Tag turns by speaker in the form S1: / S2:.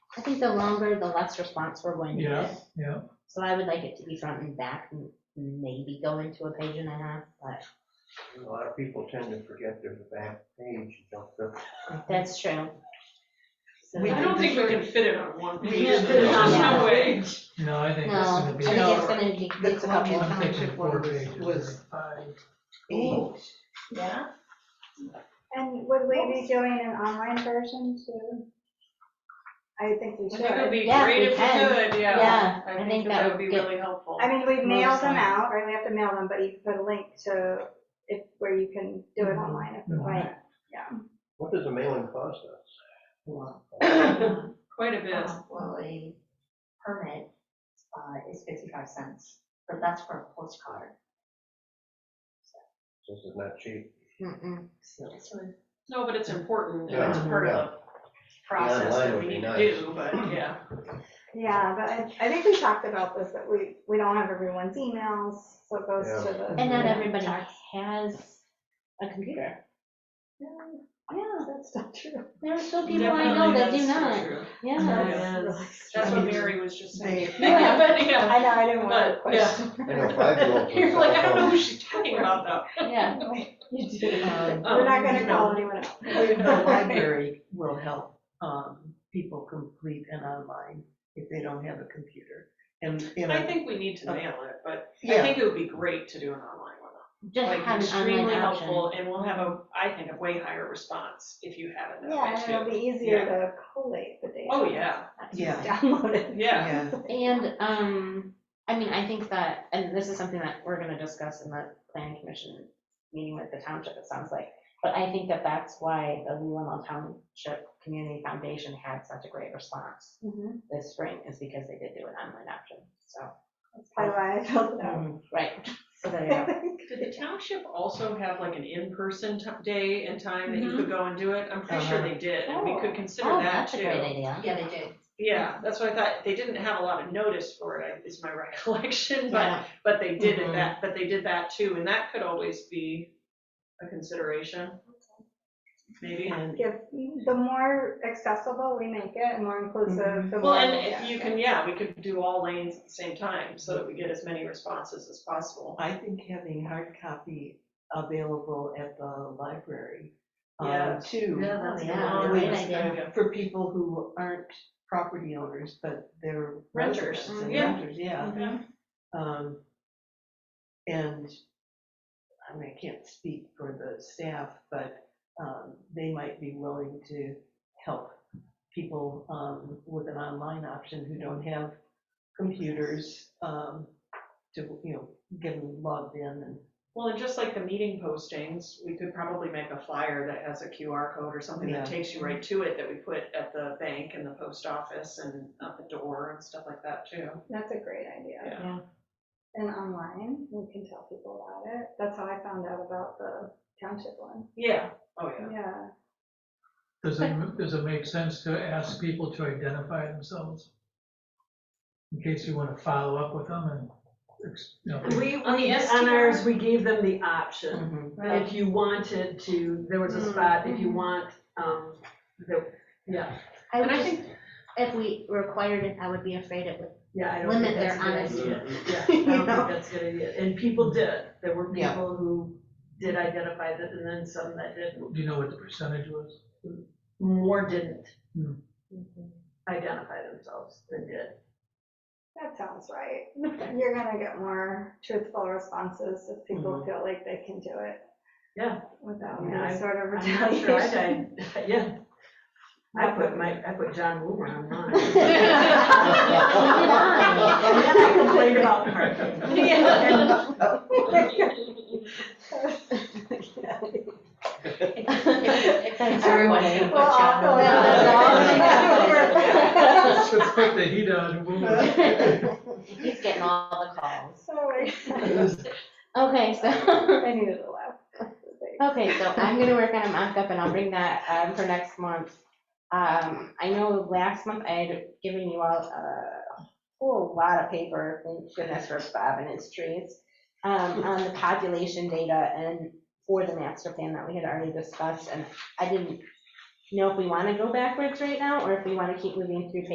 S1: I think the longer, the less response we're going to
S2: Yeah,
S1: get.
S2: yeah.
S1: So I would like it to be front and back, and maybe go into a page and a half, but
S3: A lot of people tend to forget there's a back page, you don't go
S1: that's true. So
S4: We-
S5: I don't think we can fit it on one
S4: We
S5: page.
S4: can't
S1: fit it on
S5: There's no
S1: one
S5: way.
S2: No, I think
S1: No,
S2: it's
S1: I
S2: gonna
S1: think
S2: be.
S1: it's gonna be,
S4: The
S1: it's a couple.
S4: Columbia
S2: I'm thinking
S4: Township
S2: four
S4: one
S2: pages
S4: was
S2: or five.
S4: eight.
S5: Yeah.
S6: And would we be doing an online version too? I think we
S5: I think it would
S6: should.
S5: be
S1: Yeah, we
S5: great if we
S1: can.
S5: could, yeah.
S1: Yeah, I think that
S5: would be
S1: would get-
S5: really helpful.
S6: I mean, we mail
S5: Most
S6: them
S5: online.
S6: out, right, we have to mail them, but you can put a link to, if, where you can do it online if you
S2: Mhm.
S6: want.
S1: Right.
S3: What does a mailing cost us?
S5: Quite a bit.
S7: Uh, Well, a permit uh, is 55 cents, but that's for a postcard.
S3: This is not cheap.
S1: Mm-mm.
S5: No, but it's important, and
S3: Yeah.
S5: it's part of the process
S3: online
S5: that
S3: would
S5: we
S3: be
S5: need to
S3: nice.
S5: do, but yeah.
S6: Yeah, but I, I think we talked about this, that we, we don't have everyone's emails, so it goes to the.
S1: And not everybody
S6: Text.
S1: has a computer.
S6: Yeah, that's not true.
S1: There are still people I know
S5: Definitely,
S1: that do
S5: that's so
S1: not,
S5: true.
S1: yeah.
S5: Yes.
S6: really
S5: That's what
S6: strange.
S5: Mary was just saying.
S6: Yeah.
S5: But yeah,
S6: I know, I didn't want to
S5: but
S6: question.
S5: yeah.
S3: I know five-year-olds.
S5: You're like, I don't know who she's talking about though.
S1: Yeah.
S6: You do.
S1: Um,
S6: We're not gonna
S4: Um,
S6: call anyone out.
S4: The library will help um, people complete an online if they don't have a computer. And, you
S5: I
S4: know,
S5: think we need to mail it, but I
S4: yeah,
S5: think it would be great to do an online one.
S1: Just
S5: Like
S1: have an
S5: extremely
S1: online option.
S5: helpful, and we'll have a, I think, a way higher response if you have it
S6: Yeah,
S5: that
S6: and
S5: way too.
S6: it'll be easier to collate the data.
S5: Oh, yeah,
S6: not
S4: Yeah.
S6: Just download it.
S5: yeah.
S4: yeah,
S1: And, um, I mean, I think that, and this is something that we're gonna discuss in the planning commission meeting with the township, it sounds like. But I think that that's why the Leland Township Community Foundation had such a great response
S6: Mhm.
S1: this spring, is because they did do an online option, so,
S6: That's probably why I filled it out.
S4: um,
S1: right, so there you go.
S5: Did the township also have like an in-person t- day and time that you could go and do it? I'm pretty sure
S4: Uh-huh.
S5: they did, and we could consider
S1: Mm-hmm. Oh,
S5: that
S1: That's a great
S5: too.
S1: idea.
S7: Yeah, they do.
S5: Yeah, that's what I thought, they didn't have a lot of notice for it, I- is my recollection, but,
S1: Yeah. Mm-hmm.
S5: but they did it
S4: Mhm.
S5: that, but they did that too, and that could always be a consideration. Maybe.
S4: and
S6: Give, the more accessible we make it, and more inclusive,
S8: Mm-hmm.
S6: the more.
S5: Well, and
S6: we'll
S5: if
S6: get.
S5: you can, yeah, we could do all lanes at the same time, so that we get as many responses as possible.
S4: I think having hard copy available at the library um,
S5: Yeah.
S4: too.
S1: that's
S5: Oh,
S1: a
S4: yeah.
S5: great
S4: Great
S5: idea.
S4: For people who aren't property owners, but they're
S5: Renters,
S4: residents and
S5: yeah.
S4: Renters, yeah.
S5: Mm-hmm.
S4: Um, and, I mean, I can't speak for the staff, but, um, they might be willing to help people, um, with an online option who don't have computers, um, to, you know, get them logged in and,
S5: Well, and just like the meeting postings, we could probably make a flyer that has a QR code or something
S4: Yeah.
S5: that takes you right to it that we put at the bank and the post office and at the door and stuff like that too.
S6: That's a great idea.
S5: Yeah.
S1: Yeah.
S6: And online, we can tell people about it. That's how I found out about the township one.
S5: Yeah, oh yeah.
S6: Yeah.
S2: Does it, does it make sense to ask people to identify themselves? In case you wanna follow up with them and, ex- you know,
S8: We,
S1: On the
S8: we, on
S1: STR?
S8: ours, we gave them the option.
S7: Mm-hmm.
S8: If you wanted to, there was a spot, if you want, um, the, yeah,
S1: I
S8: And
S1: would
S8: I
S1: just, if we required it, I would be afraid it would,
S8: yeah, I don't
S1: Limit
S8: think that's a
S1: their
S8: good
S1: honesty.
S8: idea. Yeah, I don't think that's a good idea. And people did. There were
S4: Yeah.
S8: people who did identify that and then some that didn't.
S2: do you know what the percentage was?
S8: More didn't
S7: Mm-hmm.
S2: Hmm.
S8: Mm-hmm. identify themselves than did.
S6: That sounds right. You're gonna get more truthful responses if people
S4: Mhm.
S6: feel like they can do it.
S8: Mm-hmm. Yeah.
S6: Without
S8: Yeah,
S6: any
S8: I-
S6: sort of
S8: I'm not sure I'd,
S6: retaliation.
S8: I'd- yeah. I put my, I put John Woomer on mine. And then I complained about parking.
S5: Yeah.
S1: Thanks,
S7: everyone.
S6: We'll all go
S1: Yeah.
S6: out.
S2: Let's put the heat on and we'll-
S1: he's getting all the calls.
S6: Sorry.
S1: Okay, so.
S6: I needed a laugh.
S1: Okay, so I'm gonna work on a mock-up and I'll bring that um, for next month. Um, I know last month I had given you all uh, a whole lot of paper, thank goodness for Bob and his trees, um, on the population data and for the master plan that we had already discussed, and I didn't know if we wanna go backwards right now, or if we wanna keep moving through